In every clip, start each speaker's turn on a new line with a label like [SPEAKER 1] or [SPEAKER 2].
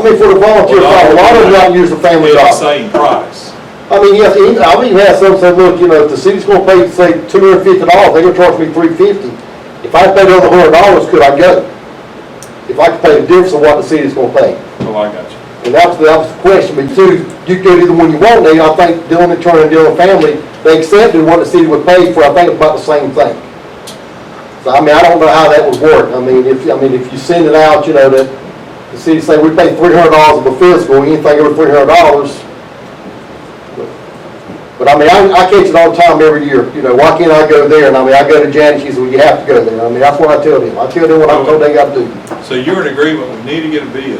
[SPEAKER 1] I mean, for the volunteer fire, a lot of them don't use the family
[SPEAKER 2] Be the
[SPEAKER 1] dollar.
[SPEAKER 2] same price.
[SPEAKER 1] I mean, yes, even- I've even had some say, look, you know, if the city's gonna pay, say, two hundred and fifty dollars, they're gonna charge me three fifty. If I paid another hundred dollars, could I go? If I could pay the difference of what the city's gonna pay.
[SPEAKER 2] Oh, I got you.
[SPEAKER 1] And that was, that was the question, but two, you could do the one you want, and I think Dillon and Turner and Dillon family, they accepted what the city would pay for, I think, about the same thing. So, I mean, I don't know how that would work, I mean, if, I mean, if you send it out, you know, that the city say, we pay three hundred dollars of a fiscal, anything over three hundred dollars. But I mean, I, I catch it all the time every year, you know, why can't I go there, and I mean, I go to Janet, she says, well, you have to go there, I mean, that's what I tell them, I tell them what I'm told they gotta do.
[SPEAKER 2] So you're in agreement, we need to get a bid,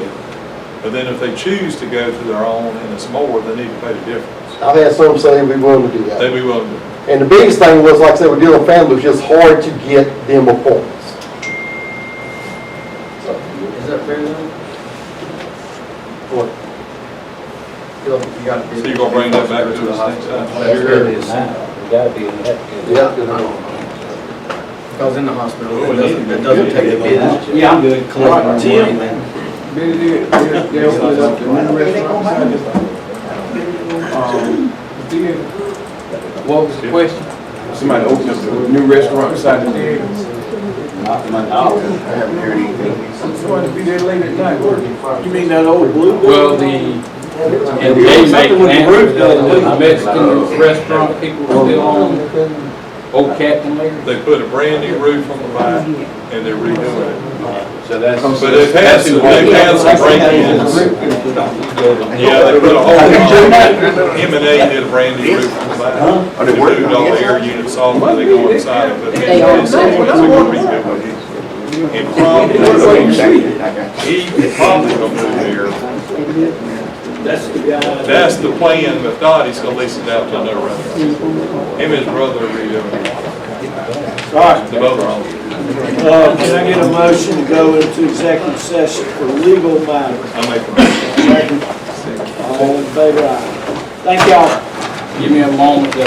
[SPEAKER 2] but then if they choose to go to their own and it's more, they need to pay the difference.
[SPEAKER 1] I've had some say we willing to do that.
[SPEAKER 2] They be willing to,
[SPEAKER 1] And the biggest thing was, like I said, with dealing with family, it was just hard to get them appointments. So,
[SPEAKER 3] Is that fair though?
[SPEAKER 1] what-
[SPEAKER 3] You got to be-
[SPEAKER 2] so you're gonna bring that back to the next
[SPEAKER 3] That's really
[SPEAKER 2] time?
[SPEAKER 3] a sign.
[SPEAKER 4] We gotta be, we have to.
[SPEAKER 1] Yeah. you know.
[SPEAKER 3] Because in the hospital,
[SPEAKER 2] Well,
[SPEAKER 3] it
[SPEAKER 2] we need
[SPEAKER 3] doesn't,
[SPEAKER 2] to
[SPEAKER 3] it doesn't
[SPEAKER 2] get
[SPEAKER 3] take a
[SPEAKER 2] it.
[SPEAKER 3] bid.
[SPEAKER 4] Yeah, I'm good.
[SPEAKER 3] Collect our money then.
[SPEAKER 5] Um, What was the question? Somebody opened up a new restaurant beside the jail.
[SPEAKER 4] Not my knowledge.
[SPEAKER 5] I haven't heard anything.
[SPEAKER 4] You mean that old blue?
[SPEAKER 5] Well, the, and they make that, the Mexican restaurant people were still on, old Captain Lear.
[SPEAKER 2] they put a brand new roof on the back and they're redoing it.
[SPEAKER 4] So that's.
[SPEAKER 2] But they've had some, they've had some break-ins. Yeah, they put a whole, M and A did a brand new roof on the back. They moved all the air units off, and they go inside and put.
[SPEAKER 6] They are.
[SPEAKER 2] And probably, He probably gonna move here. That's the plan, but not, he's gonna lease it out to another restaurant. Him and his brother are redoing it. The both are on.
[SPEAKER 7] Uh, Can I get a motion to go into executive session for legal matters?
[SPEAKER 2] I make a motion.
[SPEAKER 7] All in favor, aye. Thank y'all.
[SPEAKER 5] Give me a moment to